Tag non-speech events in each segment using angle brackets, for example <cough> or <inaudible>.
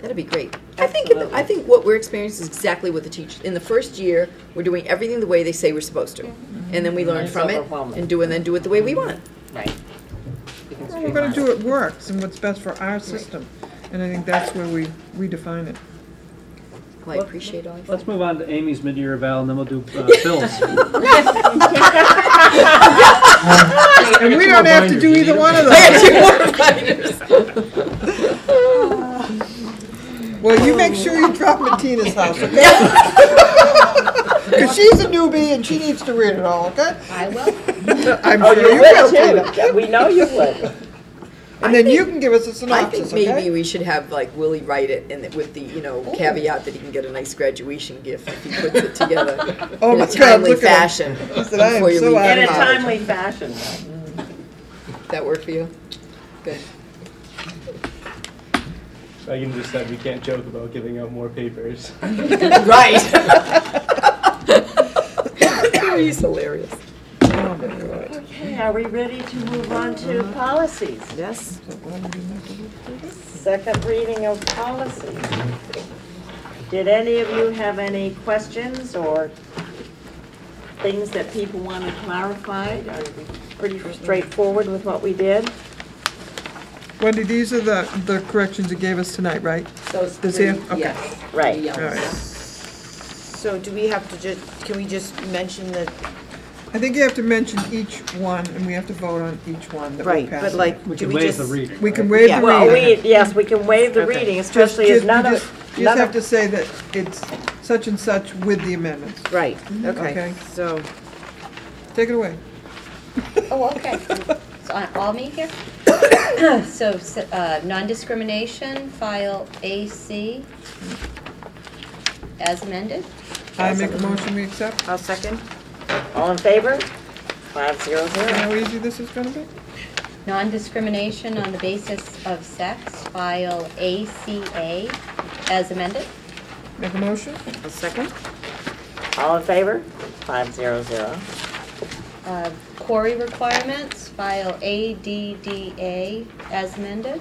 That'd be great. I think, if- I Absolutely. think what we're experiencing is exactly what the teach, in the first year, we're doing everything the way they say we're supposed to. And then we learn Mm-hmm. It's from it overwhelming. and do, and then do it the way we want. Right. We can Well, we're gonna do streamline what works and what's best for our system, and I think that's where we redefine it. Well, I appreciate all your Let's move on to Amy's mid-year eval, and then we'll do <laughs> uh, Phil's. And we don't have to do either one <laughs> of those. <laughs> Well, you make sure you drop Matina's house, okay? <laughs> Because she's a newbie and she needs to read it all, okay? I will. <laughs> I'm Oh, sure you you will, would Tina. too. We know you would. And then you can give us a I synopsis, think maybe okay? Oh. we should have like Willie write it and it- with the, you know, caveat that he can get a nice graduation gift if he puts it <laughs> together Oh in my a God, timely look at him. fashion. He said, "I am before you so leave In out of a it." college." timely fashion. That work for you? Good. I can just said we can't joke about giving out more papers. Right. <laughs> He's hilarious. Oh, my God. Okay, are we ready to move on to policies? Yes. Second reading of policy. Did any of you have any questions or things that people wanted clarified? Are we pretty straightforward with what we did? Wendy, these are the, the corrections you gave us tonight, right? Those This three, here? Okay. yes. Right. Yeah. All right. So do we have to just, can we just mention that, I think you have to mention each one, and we have to vote on each one that we right, pass. but like, We do can we waive just? the reading. We can right? waive the Yeah. Well, reading. we, yes, we can waive the Okay. reading, especially if Just- none you of, just- You none just of- have to say that it's such and such with the amendments. Right, Okay. okay, so, Take it away. Oh, okay. So I- all me here? <coughs> So s- uh, non-discrimination, file AC as amended. I make a motion, we accept. I'll second. All in favor? Five zero You know zero. how easy this is gonna be? Non-discrimination on the basis of sex, file ACA as amended. Make a motion? I'll second. All in favor? Five zero zero. Uh, Quarry requirements, file ADDA as amended.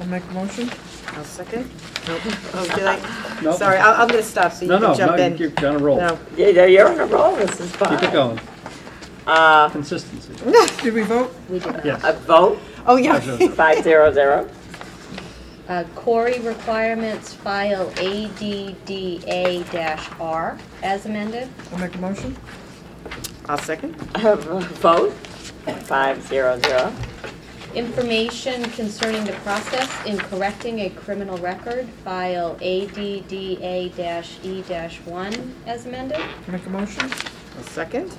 I'll make a <laughs> motion. I'll second. Nope. Oh, did I? Nope. Sorry, I- I'm gonna stop so you No, no, can jump no, in. you're on a roll. No. Yeah, you're on a roll, this is fine. Keep it going. Uh, Consistency. <laughs> Did we vote? We did not. Yes. a vote, Oh, yeah. Absolutely. five zero zero. Uh, Quarry requirements, file ADDA-R as amended. I'll make a motion. I'll second. A vote, five zero zero. Information concerning the process in correcting a criminal record, file ADDA-E-1 E as amended. Make a motion. I'll second.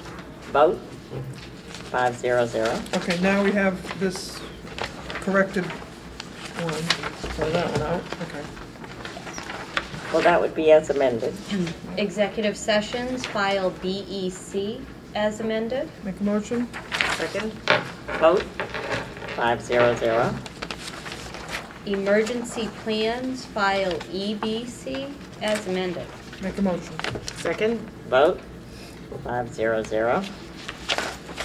Vote, five zero zero. Okay, now we have this corrected one. Throw that one out. Okay. Well, that would be as amended. Executive sessions, file BEC as amended. Make a motion. Second. Vote, five zero zero. Emergency plans, file EBC as amended. Make a motion. Second. Vote, five zero zero.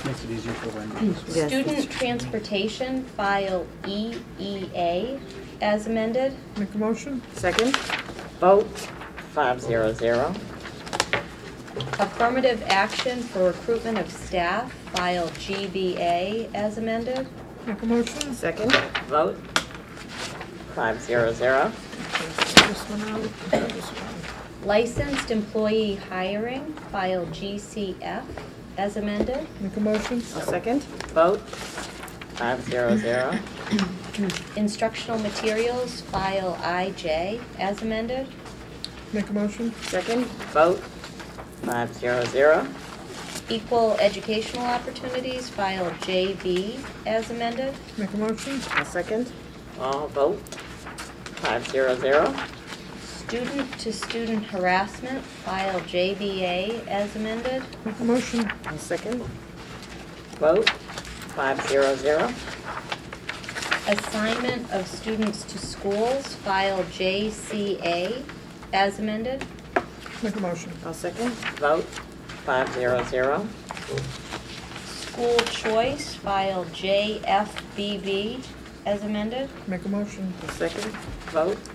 Makes it easier for Wendy. Yes. Student transportation, file EEA as amended. Make a motion. Second. Vote, five zero zero. Affirmative action for recruitment of staff, file GBA as amended. Make a motion. Second. Vote, five zero zero. This one out. This one. Licensed employee hiring, file GCF as amended. Make a motion. I'll second. Vote, five zero zero. Instructional materials, file IJ as amended. Make a motion. Second. Vote, five zero zero. Equal educational opportunities, file JB as amended. Make a motion. I'll second. All vote, five zero zero. Student-to-student harassment, file JBA as amended. Make a motion. I'll second. Vote, five zero zero. Assignment of students to schools, file JCA as amended. Make a motion. I'll second. Vote, five zero zero. School choice, file JFBB as amended. Make a motion. I'll second. Vote,